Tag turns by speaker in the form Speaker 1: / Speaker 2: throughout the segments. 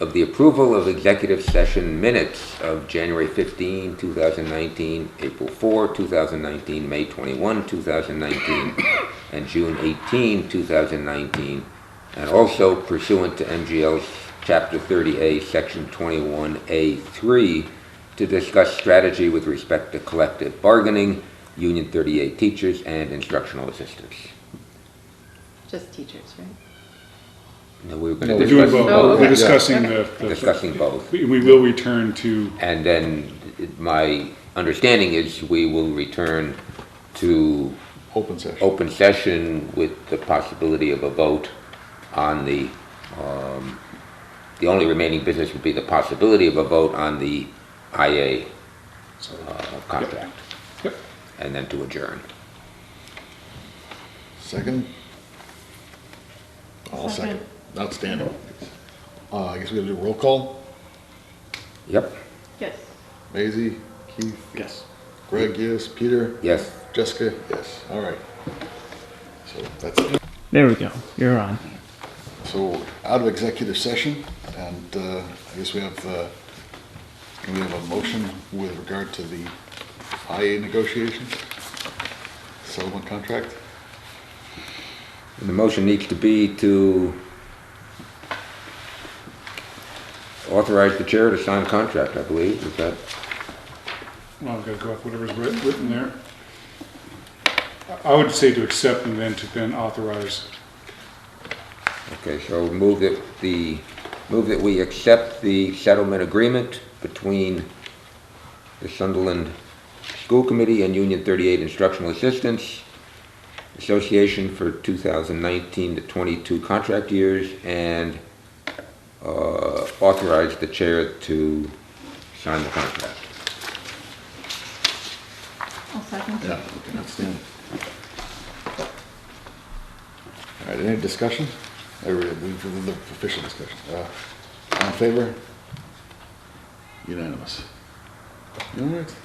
Speaker 1: of the approval of executive session minutes of January 15, 2019, April 4, 2019, May 21, 2019, and June 18, 2019, and also pursuant to MGL's Chapter 30A, Section 21A3, to discuss strategy with respect to collective bargaining, Union 38 teachers, and instructional assistants.
Speaker 2: Just teachers, right?
Speaker 1: Now, we were
Speaker 3: No,
Speaker 1: going to
Speaker 3: we're
Speaker 1: discuss
Speaker 3: doing
Speaker 2: both.
Speaker 1: both.
Speaker 2: Oh,
Speaker 3: both.
Speaker 2: okay.
Speaker 3: We're discussing the. the-
Speaker 1: Discussing both.
Speaker 3: We we will return to,
Speaker 1: And then my understanding is we will return to
Speaker 4: Open session.
Speaker 1: open session with the possibility of a vote on the, um, the only remaining business would be the possibility of a vote on the IA uh, contract.
Speaker 3: Yep.
Speaker 1: And then to adjourn.
Speaker 4: Second? All second. Outstanding. Uh, I guess we gotta do roll call.
Speaker 1: Yep,
Speaker 2: Yes.
Speaker 4: Maisie, Keith,
Speaker 3: yes.
Speaker 4: Greg, yes, Peter,
Speaker 1: yes.
Speaker 4: Jessica, yes, all right. So that's it.
Speaker 5: There we go. You're on.
Speaker 4: So out of executive session, and uh, I guess we have, uh, we have a motion with regard to the IA negotiations, settlement contract.
Speaker 1: The motion needs to be to authorize the chair to sign a contract, I believe, is that?
Speaker 3: Well, I've got to go off whatever's writ- written there. I- I would say to accept and then to then authorize.
Speaker 1: Okay, so move that the, move that we accept the settlement agreement between the Sunderland School Committee and Union 38 Instructional Assistance Association for 2019 to 22 contract years and uh, authorize the chair to sign the contract.
Speaker 2: I'll second.
Speaker 4: Yeah, okay, outstanding. All right, any discussion? I really believe this is the official discussion. Uh, All in favor? Unanimous. All right.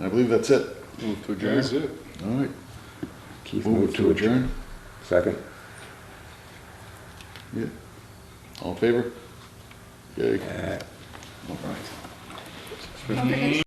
Speaker 4: I believe that's it. Move to
Speaker 3: That's it.
Speaker 4: All right,
Speaker 1: Keith
Speaker 4: move
Speaker 1: moved
Speaker 4: to adjourn.
Speaker 1: Second?
Speaker 4: Yeah. All in favor? Yay. All right.
Speaker 2: Okay.